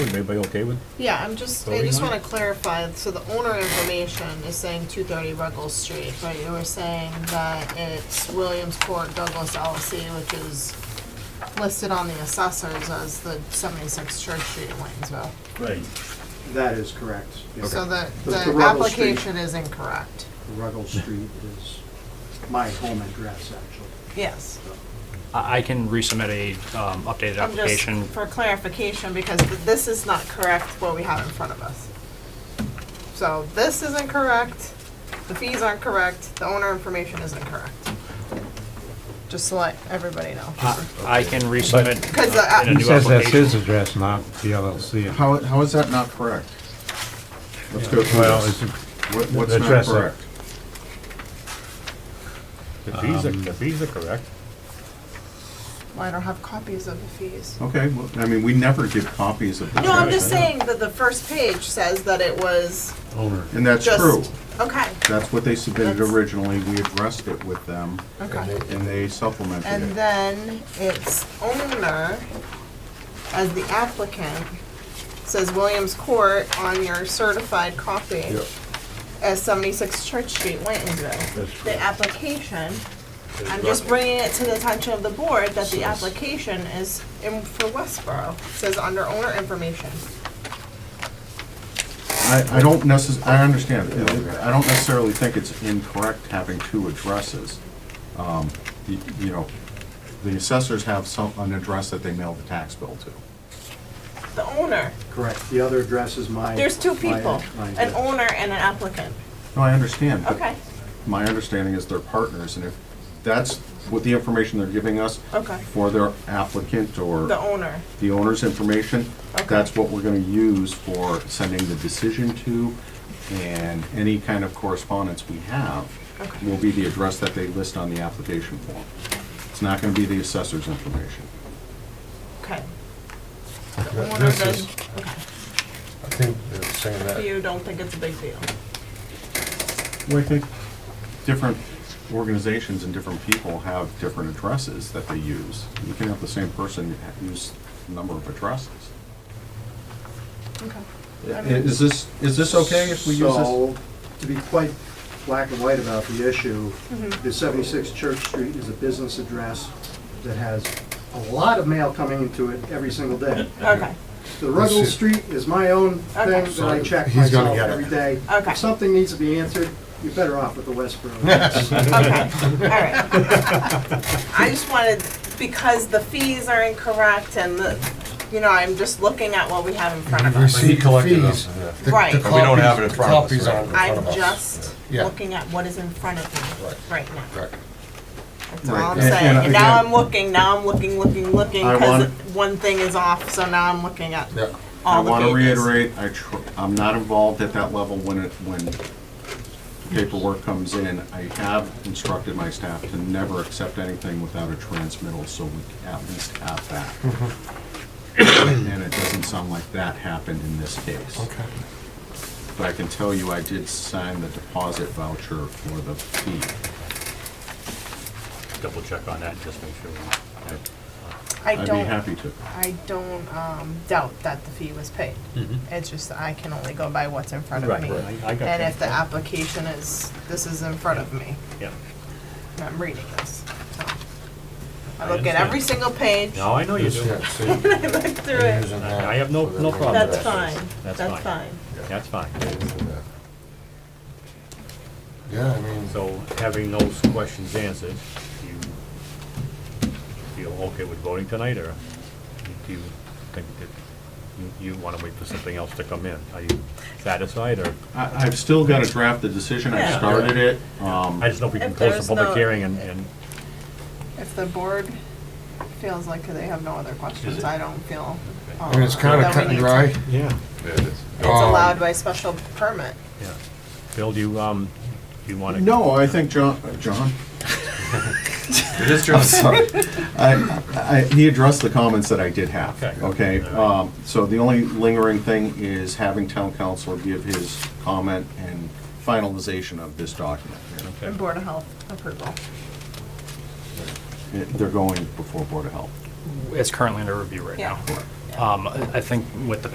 everybody okay with? Yeah, I'm just, I Voting just on wanna it? clarify, so the owner information is saying two thirty Ruggles Street, but you were saying that it's Williams Court Douglas LLC, which is listed on the assessors as the seventy-six Church Street in Waynesville. Right. That is correct. yes. So the, The- the the Ruggles Street. application is incorrect. Ruggles Street is my home address, actually. Yes. I I can resubmit a um, updated I'm just, application. for clarification, because th- this is not correct what we have in front of us. So this isn't correct, the fees aren't correct, the owner information isn't correct. Just to let everybody know. Uh, uh, I I can resubmit Because the, in a app- He new says that's his application. address, not the LLC. How, how is that not correct? Let's go through Well, this. it's, What- the What's not address of- correct? The fees are, the fees are correct. well, I don't have copies of the fees. Okay, well, I mean, we never give copies of the. No, I'm address. just saying that the first page says that it was owner. And that's just. true. Okay, That's what they submitted That's- originally. We addressed it with them okay. and they supplemented And it. then its owner, as the applicant, says Williams Court on your certified copy as 76 Church Street, Waynesville. The application, I'm just bringing it to the attention of the board that the application is in- for Westboro, says under owner information. I, I don't necess, I understand. I don't necessarily think it's incorrect having two addresses. Um, y- You know, the assessors have some, an address that they mail the tax bill to. The owner, Correct. The other address is my. there's two my- people, my an address. owner and an applicant. No, I understand. but Okay, My understanding is they're partners and if that's what the information they're giving us okay, for their applicant or the owner, the owner's information. Okay. That's what we're gonna use for sending the decision to, and any kind of correspondence we have Okay. will be the address that they list on the application form. It's not gonna be the assessor's information. okay. The Th- owner This does, is, okay. I think they're saying that, you don't think it's a big deal. Well, I think different organizations and different people have different addresses that they use. You can have the same person use a number of addresses. Okay. I- Is this, is this okay if we use this? So, to be quite black and white about the issue, Mm-hmm. the 76 Church Street is a business address that has a lot of mail coming into it every single day. Okay, The Ruggles Let's see. Street is my own Okay. thing that I check He's gonna myself get it. every day. Okay. If something needs to be answered, you're better off with the Westboro. address. okay, all right. I just wanted, because the fees are incorrect and the, you know, I'm just looking at what we have in front of we us. see collected fees. us. yeah. The- the Right. But copies- we don't have it in front of us, Copies right. aren't in front I'm of us. just Yeah. looking at what is in front of me right now. Right. That's all I'm Right. And- saying. and And now again- I'm looking, now I'm looking, looking, looking, I because want- one thing is off, so now I'm looking at Yeah. I all the want to pages. reiterate, I tr- I'm not involved at that level when it, when paperwork comes in. I have instructed my staff to never accept anything without a transmittal, so we at least have that. And it doesn't sound like that happened in this case. Okay. But I can tell you, I did sign the deposit voucher for the fee. Double check on that, and just make sure. we- I I'd be don't, happy to. I don't um, doubt that the fee was paid. It's just that I can only go by what's in front of Mm-hmm. Right, me. I I got And that. if the application is, this is in front of me, Yeah. and I'm reading this. so. I I look at every single page, No, I I know you do. Yeah, so you- look through you're it. using that. I have no- So no that- problem That's fine, That's that's fine. fine. That's fine. Yeah, I mean, So having those questions answered, do you feel okay with voting tonight, or do you think that you, you want to wait for something else to come in? Are you satisfied, or, I, I've still got to draft the decision, I Yeah. started it. Um, I just know if we can If close there's the public no- hearing and, and If the board feels like they have no other questions, I don't feel. um, I mean, it's kind of that we cut and need to- dry. Um, Yeah, It's allowed by special permit. yeah. Bill, do you, um, do you want to? No, I think John, uh, John? It is true. Sorry. I, I, he addressed the comments that I did have. Okay. Okay, All um, so the only lingering thing is having town council give his comment and finalization of this document. Okay. And Board of Health approval. It- They're going before Board of Health. It's currently under review right Yeah. now. Um, I I think with the